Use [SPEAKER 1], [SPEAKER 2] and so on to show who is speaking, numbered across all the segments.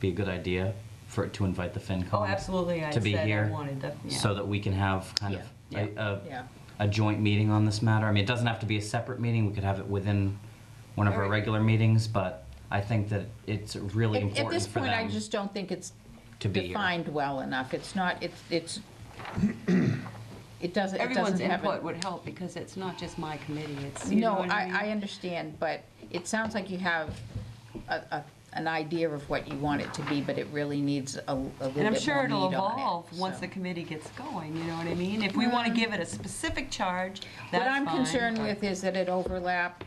[SPEAKER 1] be a good idea for it to invite the FinCom?
[SPEAKER 2] Oh, absolutely, I
[SPEAKER 1] To be
[SPEAKER 2] said I
[SPEAKER 1] here?
[SPEAKER 2] wanted that, yeah.
[SPEAKER 1] So that we can have kind of
[SPEAKER 2] Yeah,
[SPEAKER 1] a,
[SPEAKER 2] yeah,
[SPEAKER 1] a,
[SPEAKER 3] yeah.
[SPEAKER 1] a joint meeting on this matter? I mean, it doesn't have to be a separate meeting, we could have it within one of our
[SPEAKER 3] Alright.
[SPEAKER 1] regular meetings, but I think that it's really
[SPEAKER 3] At- At
[SPEAKER 1] important
[SPEAKER 3] this
[SPEAKER 1] for
[SPEAKER 3] point, I
[SPEAKER 1] them.
[SPEAKER 3] just don't think it's
[SPEAKER 1] to be here.
[SPEAKER 3] defined well enough. It's not, it's, it's, it doesn't, it
[SPEAKER 2] Everyone's
[SPEAKER 3] doesn't have.
[SPEAKER 2] input
[SPEAKER 3] a-
[SPEAKER 2] would help because it's not just my committee, it's, you know
[SPEAKER 3] No,
[SPEAKER 2] what I mean?
[SPEAKER 3] I, I understand, but it sounds like you have a, a, an idea of what you want it to be, but it really needs a, a little bit more meat on it.
[SPEAKER 2] And I'm sure it'll evolve once
[SPEAKER 3] so. Mm-hmm.
[SPEAKER 2] the committee gets going, you know what I mean? If we want to give it a specific charge, that's
[SPEAKER 3] What I'm
[SPEAKER 2] fine,
[SPEAKER 3] concerned
[SPEAKER 2] but-
[SPEAKER 3] with is that it overlap,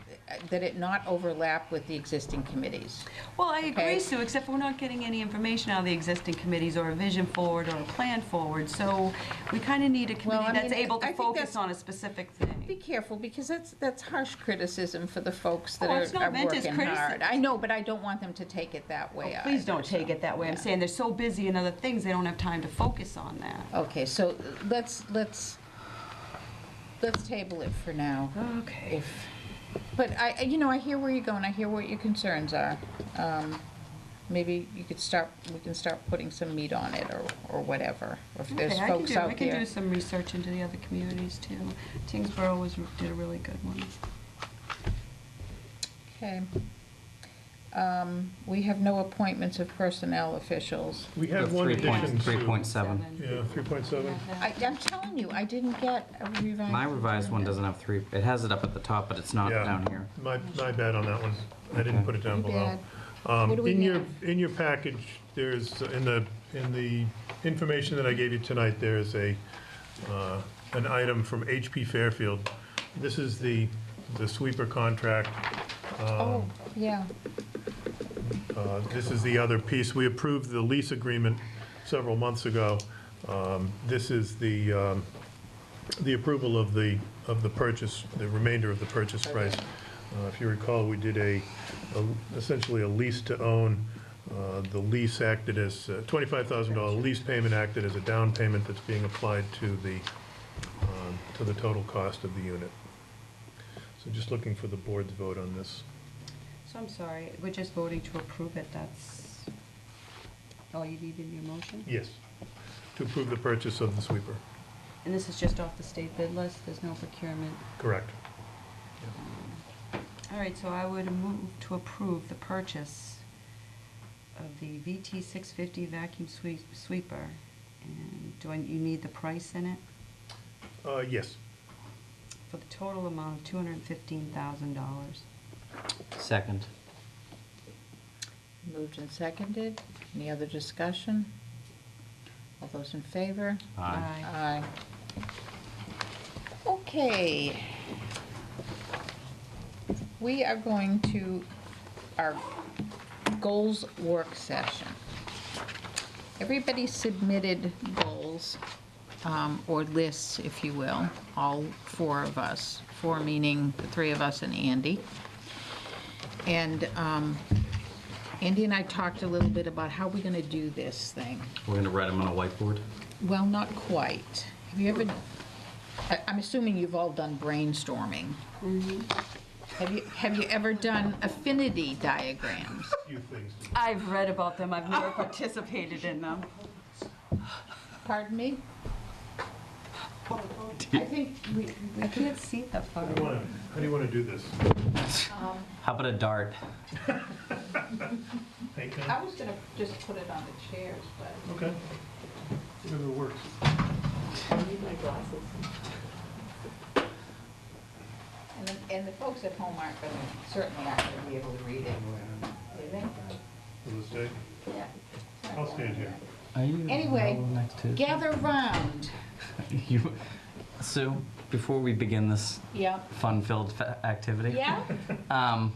[SPEAKER 3] that it not overlap with the existing committees.
[SPEAKER 2] Well, I agree,
[SPEAKER 3] okay.
[SPEAKER 2] Sue, except we're not getting any information out of the existing committees or a vision forward or a plan forward. So we kind of need a
[SPEAKER 3] Well,
[SPEAKER 2] committee
[SPEAKER 3] I
[SPEAKER 2] that's
[SPEAKER 3] mean,
[SPEAKER 2] able
[SPEAKER 3] I
[SPEAKER 2] to
[SPEAKER 3] think
[SPEAKER 2] focus
[SPEAKER 3] that's-
[SPEAKER 2] on a specific
[SPEAKER 3] Be
[SPEAKER 2] thing.
[SPEAKER 3] careful, because that's, that's harsh criticism for the folks that
[SPEAKER 2] Oh,
[SPEAKER 3] are
[SPEAKER 2] it's not
[SPEAKER 3] are
[SPEAKER 2] meant as
[SPEAKER 3] working
[SPEAKER 2] critici-
[SPEAKER 3] hard. I know, but I don't want them to take it that way
[SPEAKER 2] Oh,
[SPEAKER 3] either.
[SPEAKER 2] Please don't
[SPEAKER 3] so,
[SPEAKER 2] take it that way. I'm
[SPEAKER 3] yeah.
[SPEAKER 2] saying they're so busy in other things, they don't have time to focus on that.
[SPEAKER 3] Okay, so let's, let's, let's table it for now.
[SPEAKER 2] Okay.
[SPEAKER 3] If, but I, I- you know, I hear where you're going, I hear what your concerns are. Um, Maybe you could start, we can start putting some meat on it or, or whatever, if there's
[SPEAKER 2] Okay, I can
[SPEAKER 3] folks
[SPEAKER 2] do, I
[SPEAKER 3] out
[SPEAKER 2] can do
[SPEAKER 3] there.
[SPEAKER 2] some research into the other communities too. Tingsboro was, did a really good one.
[SPEAKER 3] Okay. Um, We have no appointments of personnel officials.
[SPEAKER 4] We have one addition, Sue.
[SPEAKER 1] Three point seven.
[SPEAKER 4] Yeah, 3.7.
[SPEAKER 3] I, I'm telling you, I didn't get a revised.
[SPEAKER 1] My revised one
[SPEAKER 3] agenda.
[SPEAKER 1] doesn't have three, it has it up at the top, but it's not
[SPEAKER 4] Yeah.
[SPEAKER 1] down here.
[SPEAKER 4] My, my bad on that one. I didn't
[SPEAKER 1] Okay.
[SPEAKER 4] put it down
[SPEAKER 3] Too
[SPEAKER 4] below.
[SPEAKER 3] bad.
[SPEAKER 4] Um,
[SPEAKER 3] What do we
[SPEAKER 4] In your,
[SPEAKER 3] have?
[SPEAKER 4] in your package, there's, in the, in the information that I gave you tonight, there is a, uh, an item from HP Fairfield. This is the, the sweeper contract.
[SPEAKER 3] Oh, yeah.
[SPEAKER 4] Uh, This is the other piece. We approved the lease agreement several months ago. Um, This is the, um, the approval of the, of the purchase, the remainder of the purchase price. Uh, If you recall, we did a, a- essentially a lease to own. Uh, The lease acted as, uh, $25,000 lease payment acted as a down payment that's being applied to the, um, to the total cost of the unit. So just looking for the board's vote on this.
[SPEAKER 2] So I'm sorry, we're just voting to approve it, that's all you need in your motion?
[SPEAKER 4] Yes, to approve the purchase of the sweeper.
[SPEAKER 2] And this is just off the state bid list, there's no procurement?
[SPEAKER 4] Correct.
[SPEAKER 2] All right, so I would move to approve the purchase of the VT 650 vacuum sweep- sweeper. And do I, you need the price in it?
[SPEAKER 4] Uh, yes.
[SPEAKER 2] For the total amount of $215,000.
[SPEAKER 1] Second.
[SPEAKER 3] Moved and seconded. Any other discussion? All those in favor?
[SPEAKER 1] Aye.
[SPEAKER 3] Aye. Okay. We are going to our goals work session. Everybody submitted goals, um, or lists, if you will, all four of us, four meaning the three of us and Andy. And um, Andy and I talked a little bit about how we're going to do this thing.
[SPEAKER 1] We're gonna write them on a whiteboard.
[SPEAKER 3] Well, not quite. Have you ever, I- I'm assuming you've all done brainstorming. Mm-hmm. Have you, have you ever done affinity diagrams?
[SPEAKER 4] Few things.
[SPEAKER 2] I've read about them, I've never participated in them.
[SPEAKER 3] Pardon me? I think we,
[SPEAKER 2] I can't see that far.
[SPEAKER 4] How do you wanna- how do you want to do this?
[SPEAKER 1] How about a dart?
[SPEAKER 4] Paint
[SPEAKER 3] I
[SPEAKER 4] pen?
[SPEAKER 3] was gonna just put it on the chairs, but.
[SPEAKER 4] Okay. Whatever works.
[SPEAKER 3] And the, and the folks at home aren't gonna, certainly aren't gonna be able to read it. Do they?
[SPEAKER 4] Will this day?
[SPEAKER 3] Yeah.
[SPEAKER 4] I'll stand here.
[SPEAKER 1] Are you
[SPEAKER 3] Anyway,
[SPEAKER 1] available next Tuesday?
[SPEAKER 3] Gather round.
[SPEAKER 1] You, Sue, before we begin this
[SPEAKER 3] Yeah.
[SPEAKER 1] fun-filled fa- activity,
[SPEAKER 3] Yeah?
[SPEAKER 1] um,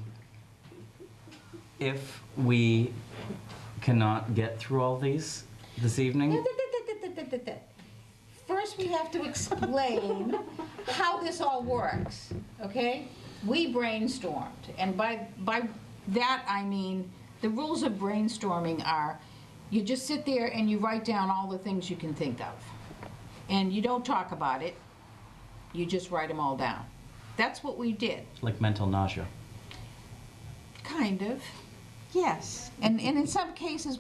[SPEAKER 1] if we cannot get through all these this evening,
[SPEAKER 3] First, we have to explain how this all works, okay? We brainstormed, and by, by that, I mean, the rules of brainstorming are, you just sit there and you write down all the things you can think of. And you don't talk about it, you just write them all down. That's what we did,
[SPEAKER 1] like mental nausea.
[SPEAKER 3] kind of.
[SPEAKER 2] Yes.
[SPEAKER 3] And, and in some cases,